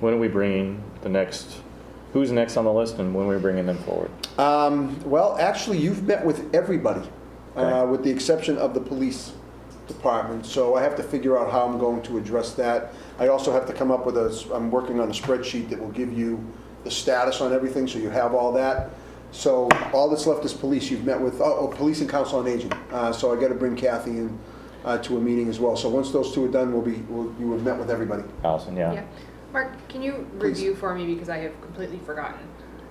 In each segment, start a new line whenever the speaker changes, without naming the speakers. When are we bringing the next, who's next on the list and when are we bringing them forward?
Um, Well, actually, you've met with everybody, uh,
Okay.
with the exception of the police department, so I have to figure out how I'm going to address that. I also have to come up with a, s- I'm working on a spreadsheet that will give you the status on everything, so you have all that. So all that's left is police, you've met with, oh, oh, police and council on aging, Uh, so I gotta bring Kathy in uh, to a meeting as well. So once those two are done, we'll be, we'll- you have met with everybody.
Allison,
Yeah.
yeah?
Mark, can you
Please.
review for me, because I have completely forgotten,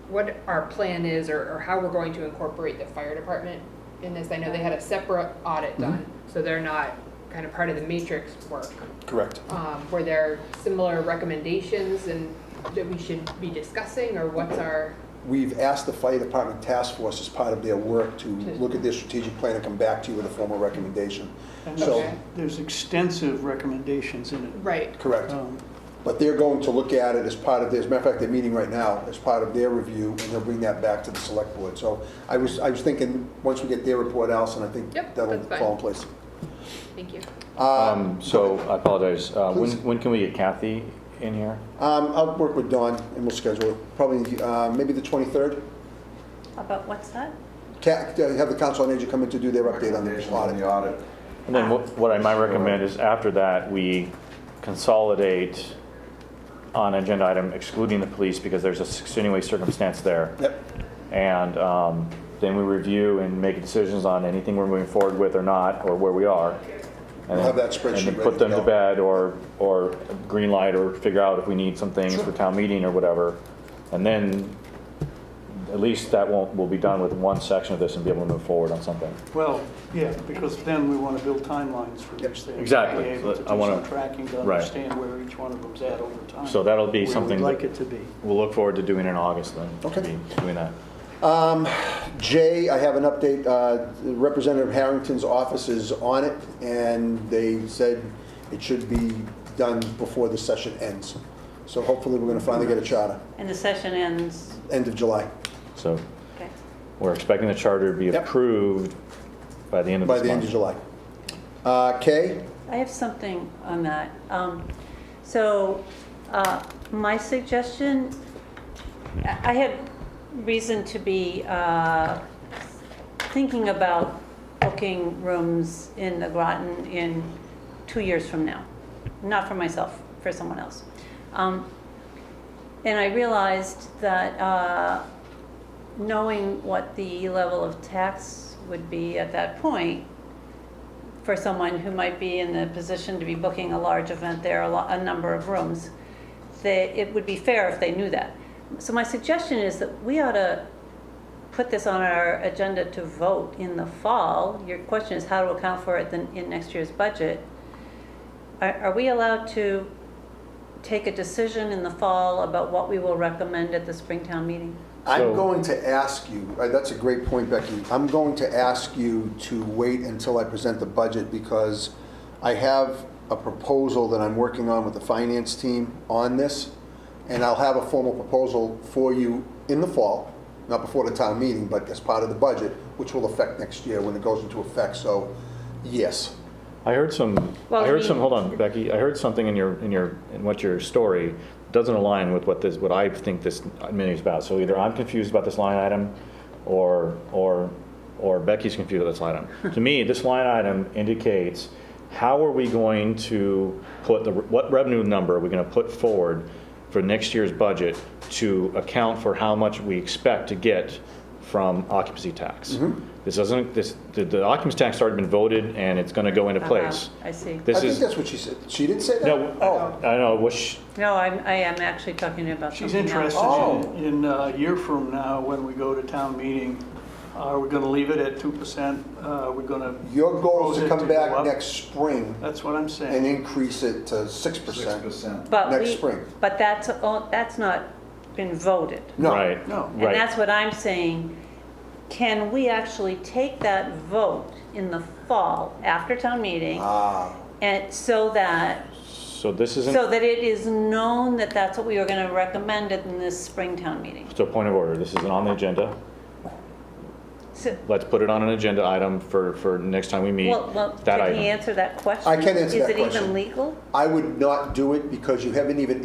what our plan is or, or how we're going to incorporate the fire department in this? I know they had a separate audit done, so they're not kind of part of the matrix work.
Correct.
Um, were there similar recommendations and that we should be discussing, or what's our,
We've asked the fire department task force as part of their work to look at their strategic plan and come back to you with a formal recommendation.
And
So,
Okay.
There's extensive recommendations in it.
right,
correct.
Um,
But they're going to look at it as part of, their- as a matter of fact, they're meeting right now as part of their review, and they'll bring that back to the select board. So I was, I was thinking, once we get their report, Allison, I think
Yep,
that'll
that's fine.
fall in place.
thank you.
Um,
Um, So I apologize. Uh, When,
Please.
when can we get Kathy in here?
um, I'll work with Dawn, and we'll schedule it, probably, uh, maybe the 23rd.
About what's that?
Ca- uh, Have the council on aging come in to do their update on the
Recommendation on the
audit.
audit.
And then what what I might recommend is after that, we consolidate on agenda item excluding the police because there's a extenuating circumstance there.
Yep,
And um, then we review and make decisions on anything we're moving forward with or not, or where we are. And
We'll have
then-
that spreadsheet
And then
ready
put
to
them to
go.
bed or, or green light or figure out if we need some things for town meeting or whatever. And then at least that won't, we'll be done with one section of this and be able to move forward on something.
Well, yeah, because then we want to build timelines for each thing.
Exactly.
Be able to
I
do some
wanna-
tracking to
right.
understand where each one of them's at over time.
So that'll be
Where we'd
something that-
like it to be.
We'll look forward to doing it in August then. to
Okay.
be Doing that.
Jay, I have an update. Uh, Representative Harrington's office is on it, and they said it should be done before the session ends. So hopefully, we're going to finally get a charter,
And the session ends,
end of July,
So
okay.
we're expecting the charter to be
Yep.
approved by the end of
by
this month.
the end of July. Uh, Kay,
I have something on that. Um, So uh, my suggestion, I I had reason to be uh, thinking about booking rooms in the Groton in two years from now. Not for myself, for someone else. Um, And I realized that uh, knowing what the level of tax would be at that point, for someone who might be in the position to be booking a large event there, a, lo- a number of rooms, they, it would be fair if they knew that. So my suggestion is that we ought to put this on our agenda to vote in the fall. Your question is how to account for it in, in next year's budget. Are, are we allowed to take a decision in the fall about what we will recommend at the Springtown meeting?
I'm
So-
going to ask you, uh, that's a great point, Becky. I'm going to ask you to wait until I present the budget because I have a proposal that I'm working on with the finance team on this, and I'll have a formal proposal for you in the fall, not before the town meeting, but as part of the budget, which will affect next year when it goes into effect, so yes.
I heard some,
Well,
I
I
heard some,
mean-
hold on, Becky, I heard something in your, in your, in what your story doesn't align with what this, what I think this menu is about. So either I'm confused about this line item, or, or, or Becky's confused about this line item. To me, this line item indicates, how are we going to put the, what revenue number are we gonna put forward for next year's budget to account for how much we expect to get from occupancy tax?
Mm-hmm.
This doesn't, this, the- the occupancy tax has already been voted, and it's gonna go into place.
Uh-huh, I see.
I
This
think
is,
that's what she said. She didn't say that?
no,
Oh,
I know, wish,
No, I'm, I am actually talking about
She's
something else.
interested in, in uh, a year from now, when we go to town meeting, are we going to leave it at 2%? Uh, Are we going to,
your goal is to
Propose it
come
to go
back
up.
next spring
that's what I'm
and
saying.
increase it to 6%.
6%.
But
next
we-
spring.
But that's, all- that's not been voted.
No.
right,
No.
right.
And
And that's what I'm saying. Can we actually take that vote in the fall after town meeting?
Ah.
And so that,
So this isn't,
so that it is known that that's what we are going to recommend in this spring town meeting.
so point of order, this isn't on the agenda.
So-
Let's put it on an agenda item for, for next time we meet,
Well, well,
that
can he
item.
answer that question?
I can answer that
Is it
question.
even legal?
I would not do it because you haven't even